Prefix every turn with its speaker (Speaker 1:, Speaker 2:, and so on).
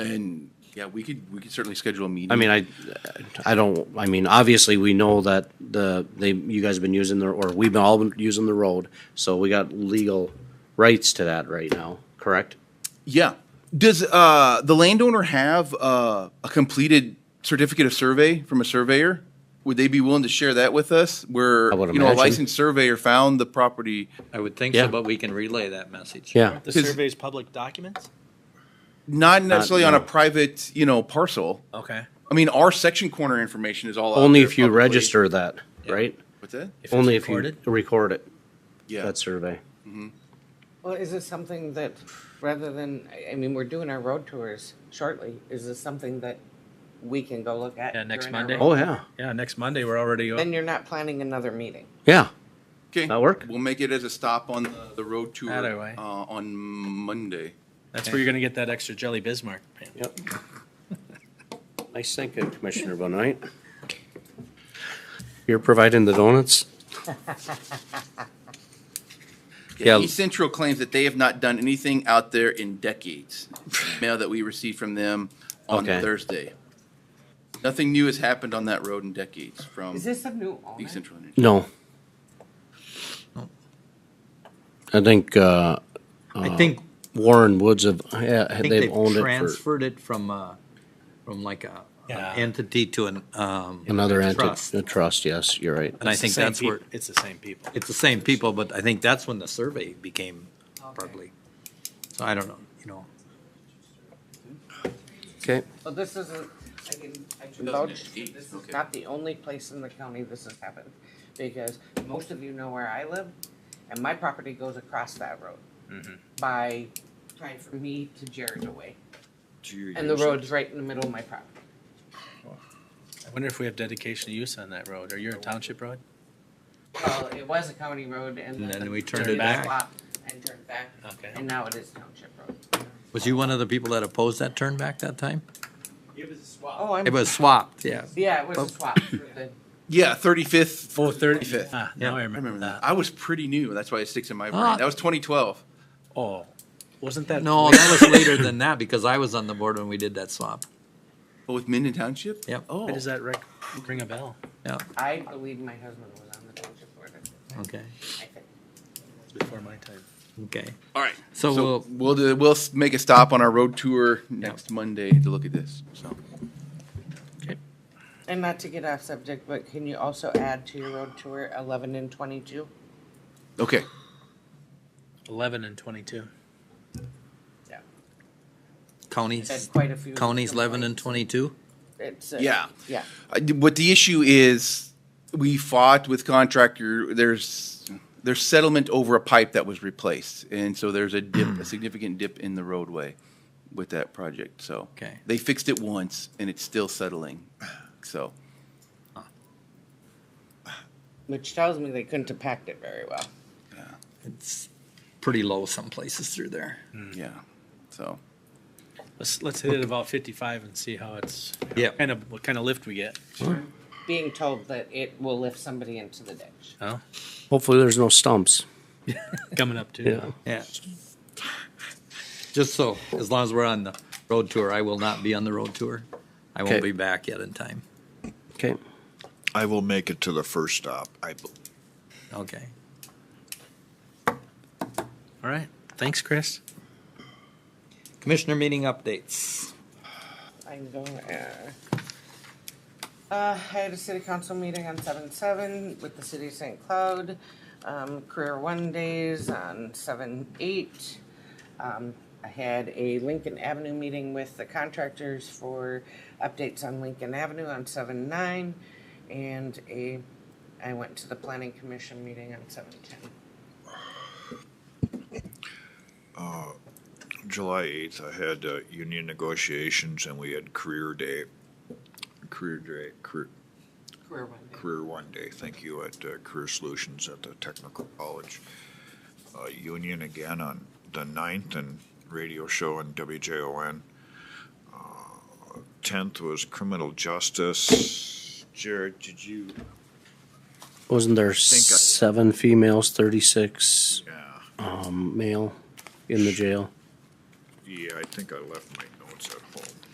Speaker 1: And, yeah, we could, we could certainly schedule a meeting.
Speaker 2: I mean, I, I don't, I mean, obviously, we know that the, they, you guys have been using the, or we've been all been using the road, so we got legal rights to that right now, correct?
Speaker 1: Yeah. Does uh, the landowner have uh, a completed certificate of survey from a surveyor? Would they be willing to share that with us? Where
Speaker 2: I would
Speaker 1: you know a
Speaker 2: imagine.
Speaker 1: licensed surveyor found the property.
Speaker 3: I would think
Speaker 2: Yeah.
Speaker 3: so, but we can relay that message.
Speaker 2: Yeah,
Speaker 4: The
Speaker 1: Is-
Speaker 4: survey's public documents?
Speaker 1: Not necessarily on
Speaker 2: no.
Speaker 1: a private, you know, parcel.
Speaker 3: Okay.
Speaker 1: I mean, our section corner information is all out
Speaker 2: only
Speaker 1: there
Speaker 2: if you
Speaker 1: publicly.
Speaker 2: register that, right?
Speaker 1: What's that?
Speaker 3: If it's
Speaker 2: Only if you
Speaker 3: recorded?
Speaker 2: record it,
Speaker 1: Yeah,
Speaker 2: that survey.
Speaker 5: Well, is this something that, rather than, I- I mean, we're doing our road tours shortly, is this something that we can go look at?
Speaker 3: Yeah, next
Speaker 5: during our
Speaker 3: Monday.
Speaker 5: road-
Speaker 2: Oh, yeah,
Speaker 3: Yeah, next Monday, we're already,
Speaker 5: Then you're not planning another meeting.
Speaker 2: yeah,
Speaker 1: okay.
Speaker 2: That work?
Speaker 1: We'll make it as a stop on the, the road tour
Speaker 3: Either way.
Speaker 1: Uh, on Monday.
Speaker 4: That's where you're gonna get that extra jelly Bismarck. man.
Speaker 2: yep. Nice thinking, Commissioner Benoit. You're providing the donuts?
Speaker 1: Yeah,
Speaker 2: Yeah.
Speaker 1: East Central claims that they have not done anything out there in decades. Mail that we received from them on
Speaker 2: Okay.
Speaker 1: Thursday. Nothing new has happened on that road in decades from
Speaker 5: Is this a new
Speaker 1: East
Speaker 5: owner?
Speaker 1: Central Energy.
Speaker 2: No. I think, uh,
Speaker 3: I think,
Speaker 2: Warren Woods have, yeah,
Speaker 3: I think
Speaker 2: they've
Speaker 3: they've
Speaker 2: owned it for
Speaker 3: transferred it from, uh, from like a an
Speaker 4: Yeah.
Speaker 3: entity to an, um.
Speaker 2: another
Speaker 3: trust.
Speaker 2: entity, a trust, yes, you're right.
Speaker 3: And I
Speaker 4: It's the
Speaker 3: think
Speaker 4: same
Speaker 3: that's
Speaker 4: peop-
Speaker 3: where,
Speaker 4: It's the same people.
Speaker 3: it's the same people, but I think that's when the survey became
Speaker 5: Okay.
Speaker 3: public. So I don't know, you know.
Speaker 2: Okay,
Speaker 5: So this isn't, I can, I can vouch,
Speaker 1: 2008,
Speaker 5: this is
Speaker 1: okay.
Speaker 5: not the only place in the county this has happened. Because most of you know where I live, and my property goes across that road.
Speaker 3: Mm-hmm.
Speaker 5: By, trying from me to Jared away, and the road's right in the middle of my property.
Speaker 4: I wonder if we have dedication of use on that road, or you're a township road?
Speaker 5: Well, it was a county road and
Speaker 3: And
Speaker 5: then.
Speaker 3: then we turned
Speaker 4: it
Speaker 5: we
Speaker 4: back.
Speaker 5: swapped And turned back,
Speaker 4: Okay.
Speaker 5: and now it is township road.
Speaker 3: Was you one of the people that opposed that turn back that time?
Speaker 5: Oh,
Speaker 3: It
Speaker 5: I'm,
Speaker 3: was swapped, yeah.
Speaker 5: yeah, it was a swap for the,
Speaker 1: Yeah, 35th.
Speaker 4: Oh, thirty
Speaker 1: 35th.
Speaker 4: Ah, now I
Speaker 1: I remember
Speaker 4: remember
Speaker 1: that.
Speaker 4: that.
Speaker 1: I was pretty new. That's why it sticks in my brain.
Speaker 3: Ah.
Speaker 1: That was 2012.
Speaker 4: Oh, wasn't that?
Speaker 3: No, that was later than that because I was on the board when we did that swap.
Speaker 1: But with Minden Township?
Speaker 3: Yep.
Speaker 1: Oh,
Speaker 4: Why does that rec- ring a bell?
Speaker 3: Yeah,
Speaker 5: I believe my husband was on the township board at the time,
Speaker 3: okay,
Speaker 5: I think.
Speaker 4: It's Before my time.
Speaker 3: okay.
Speaker 1: all right.
Speaker 3: So
Speaker 1: So
Speaker 3: we'll,
Speaker 1: we'll, do- we'll s- make a stop on our road tour next Monday to look at this. So
Speaker 5: And not to get off subject, but can you also add to your road tour eleven and twenty-two?
Speaker 1: Okay.
Speaker 4: Eleven and twenty-two.
Speaker 3: counties,
Speaker 5: Said quite a few.
Speaker 3: counties eleven and twenty-two?
Speaker 5: complaints. It's, uh,
Speaker 1: Yeah.
Speaker 5: yeah.
Speaker 1: I d what the issue is, we fought with contractor, there's, there's settlement over a pipe that was replaced. And so there's a dip, a significant dip in the roadway with that project, so.
Speaker 3: Okay.
Speaker 1: They fixed it once and it's still settling, so.
Speaker 5: Which tells me they couldn't have packed it very well.
Speaker 3: It's pretty low some places through there.
Speaker 1: Yeah, so.
Speaker 4: Let's, let's hit it about fifty-five and see how it's.
Speaker 3: Yeah.
Speaker 4: Kind of, what kind of lift we get.
Speaker 5: Being told that it will lift somebody into the ditch.
Speaker 4: Oh,
Speaker 2: hopefully there's no stumps,
Speaker 4: coming up too.
Speaker 2: yeah.
Speaker 3: Yeah. Just so, as long as we're on the road tour, I will not be on the road tour. I won't
Speaker 2: Okay.
Speaker 3: be back yet in time.
Speaker 2: Okay,
Speaker 6: I will make it to the first stop. I, bel-
Speaker 3: Okay.
Speaker 4: All right. Thanks, Chris.
Speaker 3: Commissioner meeting updates.
Speaker 5: I'm going, uh, uh, I had a city council meeting on seven seven with the city of St. Cloud, um, career one days on seven eight. Um, I had a Lincoln Avenue meeting with the contractors for updates on Lincoln Avenue on seven nine. And a, I went to the planning commission meeting on seven ten.
Speaker 6: July 8th, I had uh, union negotiations and we had career day, career day, career,
Speaker 5: Career one day.
Speaker 6: career one day, thank you, at uh, Career Solutions at the Technical College. Uh, Union again on the 9th and radio show on WJON. Uh, 10th was criminal justice. Jared, did you?
Speaker 2: wasn't there
Speaker 6: Think I-
Speaker 2: seven females, thirty-six,
Speaker 6: Yeah,
Speaker 2: um, male in the jail?
Speaker 6: yeah, I think I left my